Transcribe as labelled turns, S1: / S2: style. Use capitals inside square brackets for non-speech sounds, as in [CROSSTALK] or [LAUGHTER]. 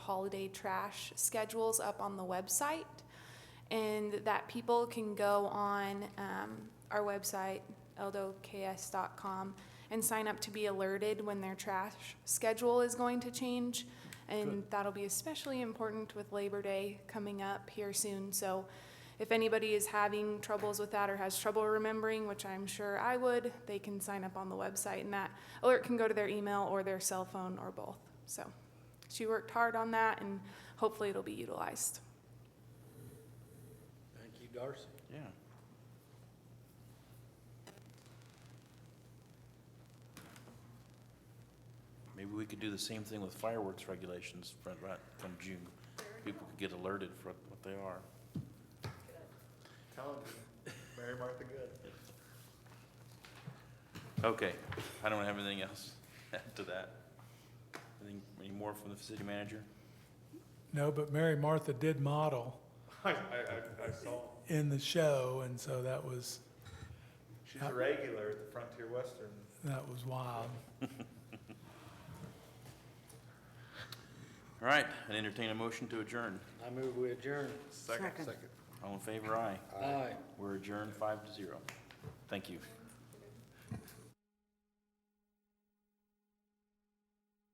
S1: holiday trash schedules up on the website and that people can go on um, our website, eldoks.com, and sign up to be alerted when their trash schedule is going to change. And that'll be especially important with Labor Day coming up here soon. So if anybody is having troubles with that or has trouble remembering, which I'm sure I would, they can sign up on the website and that alert can go to their email or their cell phone or both. So she worked hard on that and hopefully it'll be utilized.
S2: Thank you, Darcy.
S3: Yeah. Maybe we could do the same thing with fireworks regulations from, right, from June. People could get alerted for what they are.
S2: Telling you, Mary Martha Good.
S3: Okay, I don't have anything else [LAUGHS] after that. Anything, any more from the city manager?
S4: No, but Mary Martha did model
S2: I, I, I- I saw,
S4: in the show, and so that was,
S2: she's a regular at the Frontier Western.
S4: that was wild.
S3: All right, and entertain a motion to adjourn.
S5: I move we adjourn.
S2: Second. Second.
S3: All in favor, aye.
S5: Aye.
S3: We're adjourned five to zero. Thank you.